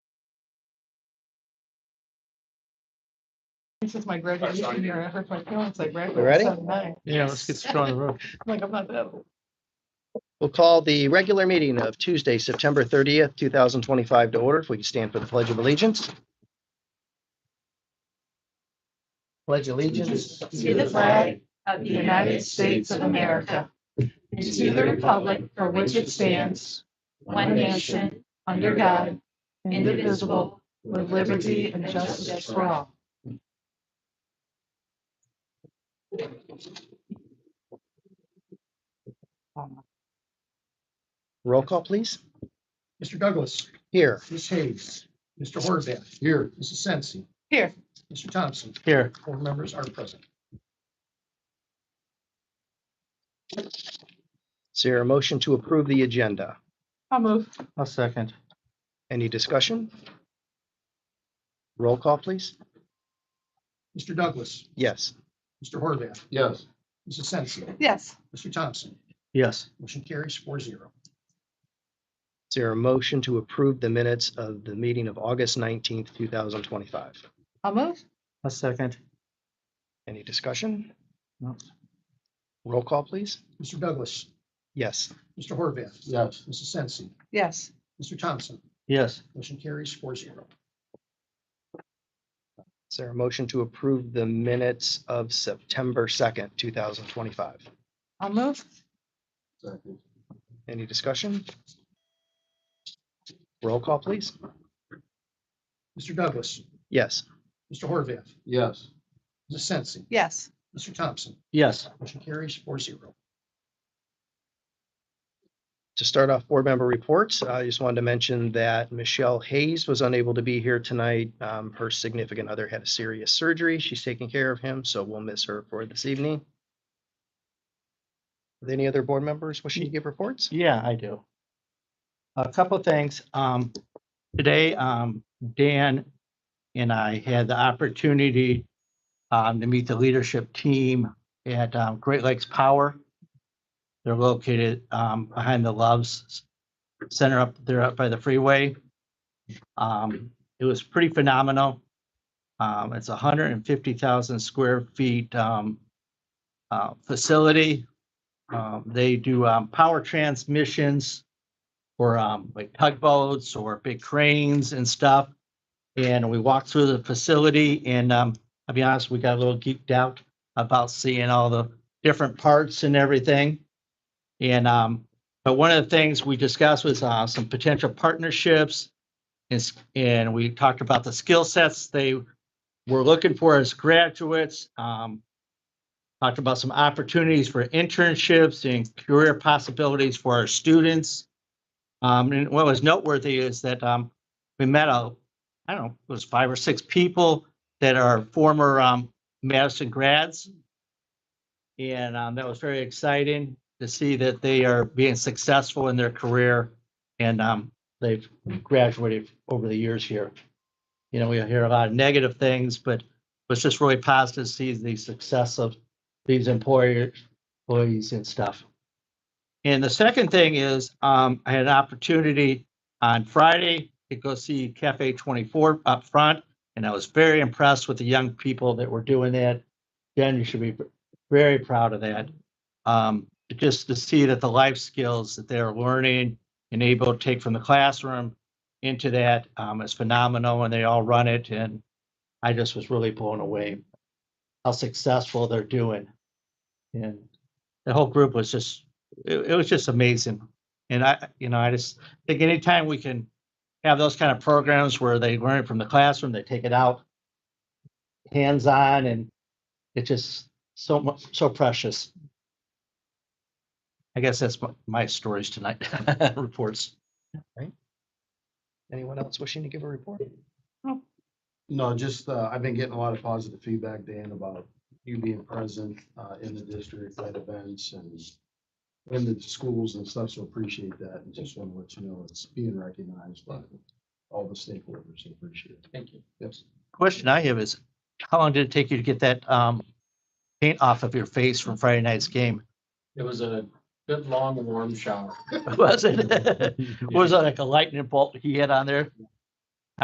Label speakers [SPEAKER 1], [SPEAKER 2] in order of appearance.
[SPEAKER 1] This is my graduation year. I hurt my feelings like. right
[SPEAKER 2] We ready?
[SPEAKER 1] at 7-9.
[SPEAKER 3] Yeah, let's get started. on the road.
[SPEAKER 1] Like, I'm not that old.
[SPEAKER 2] We'll call the regular meeting of Tuesday, September thirtieth, two thousand twenty-five to order. If we could stand for the pledge of allegiance. Pledge allegiance.
[SPEAKER 1] To the flag of the United States of America and to the republic for which it stands, one nation, under God, indivisible, with liberty and justice for all.
[SPEAKER 2] Roll call, please.
[SPEAKER 4] Mr. Douglas,
[SPEAKER 2] Here.
[SPEAKER 4] Ms. Hayes, Mr. Horvath. Here. Mrs. Sensi.
[SPEAKER 1] Here.
[SPEAKER 4] Mr. Thompson,
[SPEAKER 2] Here.
[SPEAKER 4] four members are present.
[SPEAKER 2] Is there a motion to approve the agenda?
[SPEAKER 1] I'll move.
[SPEAKER 2] A second. Any discussion? Roll call, please.
[SPEAKER 4] Mr. Douglas,
[SPEAKER 2] Yes.
[SPEAKER 4] Mr. Horvath. Yes. Mrs. Sensi,
[SPEAKER 1] Yes,
[SPEAKER 4] Mr. Thompson,
[SPEAKER 3] Yes,
[SPEAKER 4] motion carries four zero.
[SPEAKER 2] Is there a motion to approve the minutes of the meeting of August nineteenth, two thousand twenty-five?
[SPEAKER 1] I'll move.
[SPEAKER 3] a second.
[SPEAKER 2] Any discussion?
[SPEAKER 3] No.
[SPEAKER 2] Roll call, please.
[SPEAKER 4] Mr. Douglas,
[SPEAKER 2] Yes.
[SPEAKER 4] Mr. Horvath. Yes. Mrs. Sensi,
[SPEAKER 1] Yes,
[SPEAKER 4] Mr. Thompson,
[SPEAKER 3] Yes,
[SPEAKER 4] motion carries four zero.
[SPEAKER 2] Is there a motion to approve the minutes of September second, two thousand twenty-five?
[SPEAKER 1] I'll move.
[SPEAKER 2] Any discussion? Roll call, please.
[SPEAKER 4] Mr. Douglas,
[SPEAKER 2] Yes.
[SPEAKER 4] Mr. Horvath. Yes. Mrs. Sensi,
[SPEAKER 1] Yes,
[SPEAKER 4] Mr. Thompson,
[SPEAKER 3] yes,
[SPEAKER 4] motion carries four zero.
[SPEAKER 2] To start off, board member reports, uh, I just wanted to mention that Michelle Hayes was unable to be here tonight. Um, Her significant other had a serious surgery. She's taking care of him, so we'll miss her for this evening. With Any other board members wishing to give reports?
[SPEAKER 3] yeah, I do. A couple of things. Um, today, um, Dan and I had the opportunity um, to meet the leadership team at um, Great Lakes Power. They're located um, behind the Loves Center up there up by the freeway. Um, it was pretty phenomenal. Um, it's hundred and fifty thousand square feet um, uh, facility. Um, they do um, power transmissions for um, like tugboats or big cranes and stuff. And we walked through the facility and um, I'll be honest, we got a little geeked out about seeing all the different parts and everything. And um, but one of the things we discussed was uh, some potential partnerships. And, s- and we talked about the skill sets they were looking for as graduates. Um, talked about some opportunities for internships and career possibilities for our students. Um, and what was noteworthy is that, um, we met a, I don't know, it was five or six people that are former, um, Madison grads. And, um, that was very exciting to see that they are being successful in their career and, um, they've graduated over the years here. You know, we hear a lot of negative things, but it's just really positive to see the success of these employer employees and stuff. And the second thing is, um, I had an opportunity on Friday to go see Cafe Twenty Four up front, and I was very impressed with the young people that were doing that. Jen, you should be very proud of that. Um, just to see that the life skills that they're learning and able to take from the classroom into that um, is phenomenal, and they all run it, and I just was really blown away how successful they're doing. And the whole group was just, it, it was just amazing. And I, you know, I just think anytime we can have those kind of programs where they learn it from the classroom, they take it out hands-on and it's just so much, so precious. I guess that's my, my stories tonight, reports.
[SPEAKER 2] Anyone else wishing to give a report?
[SPEAKER 5] No, just, uh, I've been getting a lot of positive feedback, Dan, about you being present, uh, in the district at events and in the schools and stuff, so appreciate that. And just want to let you know it's being recognized by all the stakeholders. so Appreciate it.
[SPEAKER 4] Thank you.
[SPEAKER 5] Yes.
[SPEAKER 3] Question I have is, how long did it take you to get that, um, paint off of your face from Friday night's game?
[SPEAKER 6] It was a good, long, warm shower.
[SPEAKER 3] Was it? Was it like a lightning bolt he had on there?